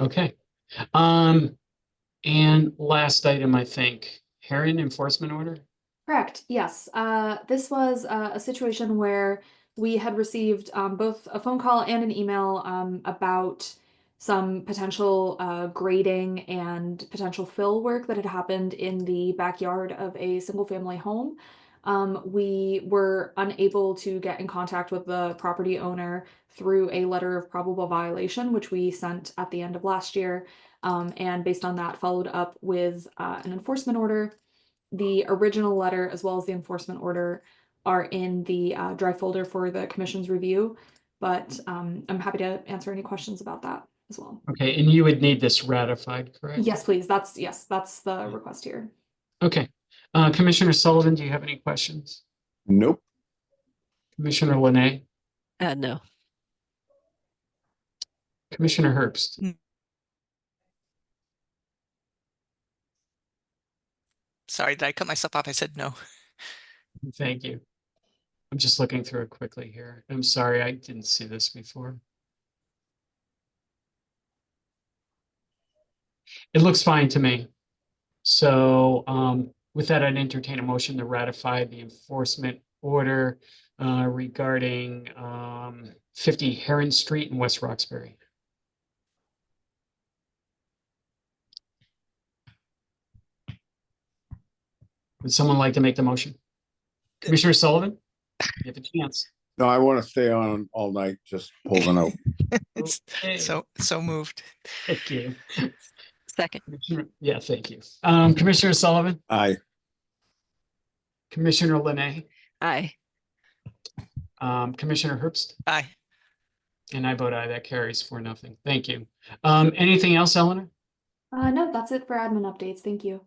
Okay. Um, and last item, I think, Heron enforcement order? Correct, yes. Uh, this was uh, a situation where we had received um, both a phone call and an email um, about some potential uh, grading and potential fill work that had happened in the backyard of a single family home. Um, we were unable to get in contact with the property owner through a letter of probable violation, which we sent at the end of last year. Um, and based on that, followed up with uh, an enforcement order the original letter as well as the enforcement order are in the uh, drive folder for the commission's review. But um, I'm happy to answer any questions about that as well. Okay, and you would need this ratified, correct? Yes, please. That's yes, that's the Mm. request here. Okay. Uh, Commissioner Sullivan, do you have any questions? Nope. Commissioner Linay, Uh, no. Commissioner Herbst? Sorry, did I cut myself off? I said no. Thank you. I'm just looking through it quickly here. I'm sorry, I didn't see this before. It looks fine to me. So um, with that, I'd entertain a motion to ratify the enforcement order uh, regarding um, 50 Heron Street in West Roxbury. Would someone like to make the motion? Commissioner Sullivan? You have a chance. No, I want to stay on all night, just holding out. It's Okay, so, so moved. Thank you. Second. Commissioner- Yeah, thank you. Um, Commissioner Sullivan, Aye. Commissioner Linay, Aye. um, Commissioner Herbst, Aye. and I vote aye. That carries for nothing. Thank you. Um, anything else, Eleanor? Uh, no, that's it for admin updates. Thank you.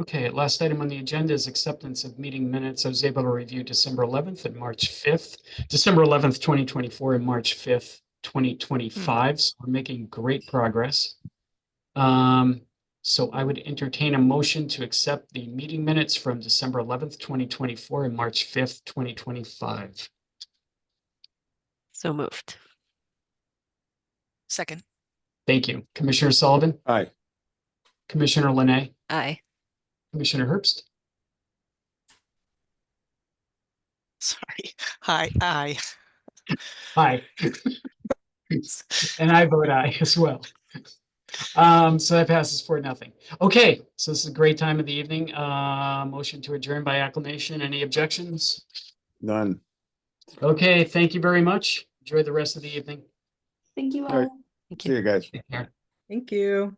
Okay, last item on the agenda is acceptance of meeting minutes. I was able to review December eleventh and March fifth, December eleventh, twenty twenty-four and March fifth, twenty twenty-five. So we're making great progress. Um, so I would entertain a motion to accept the meeting minutes from December eleventh, twenty twenty-four and March fifth, twenty twenty-five. So moved. Second. Thank you. Commissioner Sullivan, Aye. Commissioner Linay, Aye. Commissioner Herbst, Sorry. Hi. Aye. Hi. And I vote aye as well. Um, so that passes for nothing. Okay, so this is a great time of the evening. Uh, motion to adjourn by acclamation. Any objections? None. Okay, thank you very much. Enjoy the rest of the evening. Thank you all. Alright. Thank See you. you guys. Take care. Thank you.